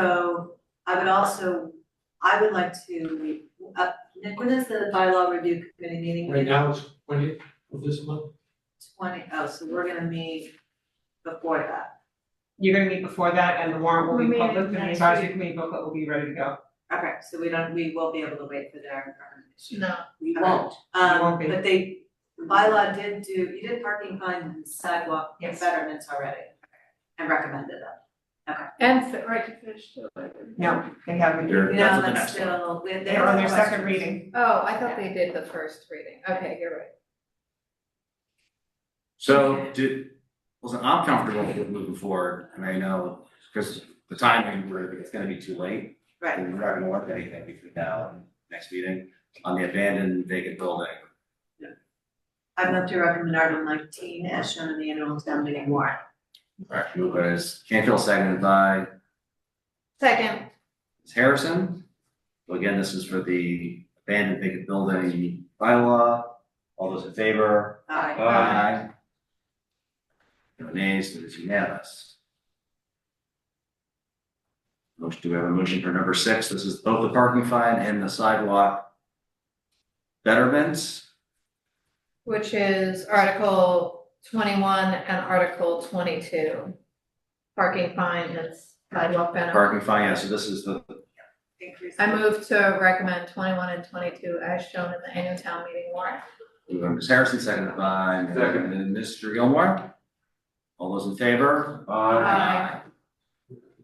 So I would also, I would like to, uh, Nick, when is the bylaw review committee meeting? Right now, it's twenty of this month, Twenty, oh, so we're gonna meet before that, You're gonna meet before that and the warrant will We're be meeting public, and the next advisory committee booklet will be ready to go. okay, so we don't, we will be able to wait for their recommendation. No, We won't. Um, won't be. but they, the bylaw did do, you did parking fines and sidewalk Yes. betterments already, and recommended them. and fit right to fish too. I think. No, they haven't. They're- that's No, what the that's next one. still, we- they They're on their have second questions. reading. Oh, I thought they did the first reading, okay, you're right. So did, listen, I'm comfortable with moving forward and I know, because the timing, we're, it's gonna be too late. Right. We're not gonna work anything between now and next meeting on the abandoned vacant building. I'd love to recommend Article nineteen as shown in the annual town meeting warrant. Alright, move as Canfield seconded by Second, Ms. Harrison. So again, this is for the abandoned vacant building bylaw. All those in favor? Aye. Aye. No nays, it is unanimous. Motion, do we have a motion for number six? This is both the parking fine and the sidewalk betterments. which is Article twenty-one and Article twenty-two. Parking fine and sidewalk benefit. Parking fine, yeah, so this is the, Increase. I move to recommend twenty-one and twenty-two as shown in the annual town meeting warrant. moved by Ms. Harrison, seconded by Second. Mr. Gilmore. All those in favor? Aye.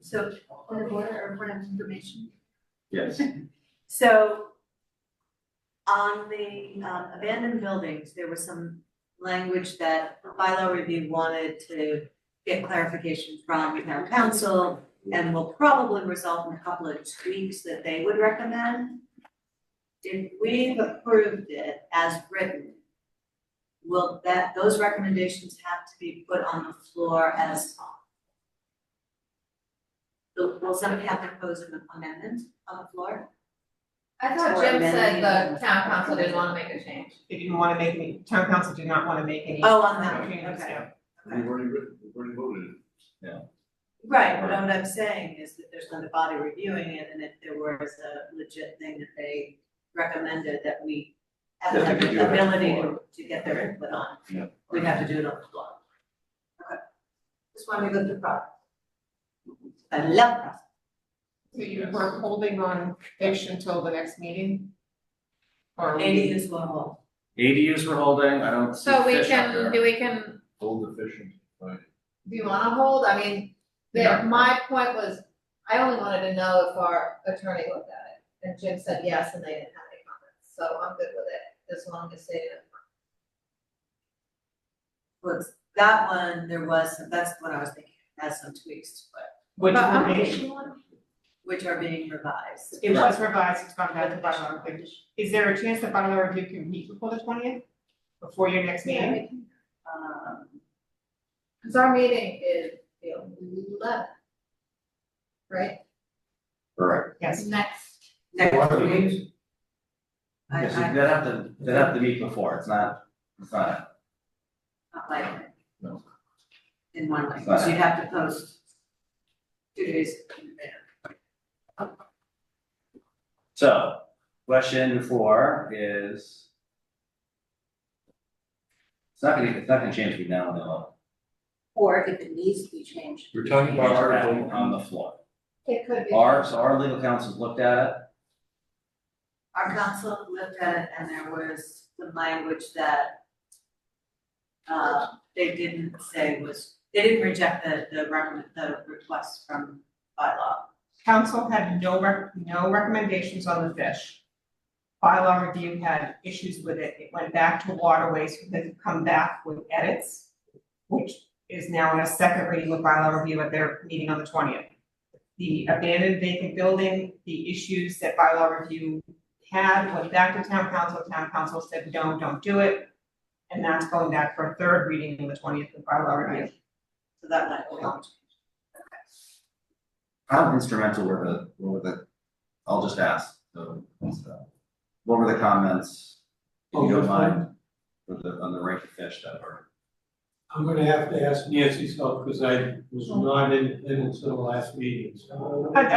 So, point of order or point of information? Yes. So on the um, abandoned buildings, there was some language that bylaw review wanted to get clarification from town council and will probably result in a couple of tweaks that they would recommend. If we've approved it as written, will that, those recommendations have to be put on the floor as will will somebody have to pose an amendment on the floor? I thought Jim said the town council didn't wanna make a change. They didn't wanna make any, town council did not wanna make any. Oh, on that, okay. changes, yeah. We've already written, we've already voted it. Right, but what I'm saying is that there's not a body reviewing it, and if there was a legit thing that they recommended that we have That they the could do it on the ability to, floor. to get their input on, Yeah. we'd have to do it on the floor. Okay. Just wanted to go through the process. I love process. So you were holding on fish until the next meeting? Or? Eighty is one whole. ADUs we're holding, I don't see So we fish up there. can, do we can Hold efficient, right? Do you wanna hold? I mean, Yeah. there, my point was, I only wanted to know if our attorney looked at it, and Jim said yes, and they didn't have any comments, so I'm good with it, as long as they didn't. Was, that one, there was, some- that's what I was thinking, has some tweaks, but, Which But I'm information? which are being revised. It was revised, it's gone back to bylaw review. Is there a chance that bylaw review can meet before the twentieth? Before your next meeting? Um, Cause our meeting is the eleventh. Right, Correct. Yes. next, next week, I, Yes, I, they'd have to, they'd have to meet before, it's not, it's not. not like it. No. In one way, so you'd have to post two days in advance. So, question four is. It's not gonna, it's not gonna change between now and then. Or if it needs to be changed, We're talking about article, On the floor. it could be. Our, so our legal counsel's looked at it, Our council looked at it and there was some language that uh, they didn't say was, they didn't reject the, the recommend, the request from bylaw. Council had no rec- no recommendations on the fish. Bylaw review had issues with it, it went back to waterways, who had come back with edits, which is now in a second reading of bylaw review at their meeting on the twentieth. The abandoned vacant building, the issues that bylaw review had went back to town council, town council said, no, don't do it. And that's going back for a third reading on the twentieth of bylaw review. So that language. how instrumental were the, what were the, I'll just ask, so. so, What were the comments, if you Oh, don't which mind, for the, on the rank of fish that were? I'm gonna have to ask Nancy's help, because I was not in, attendance at the last meeting, so. I-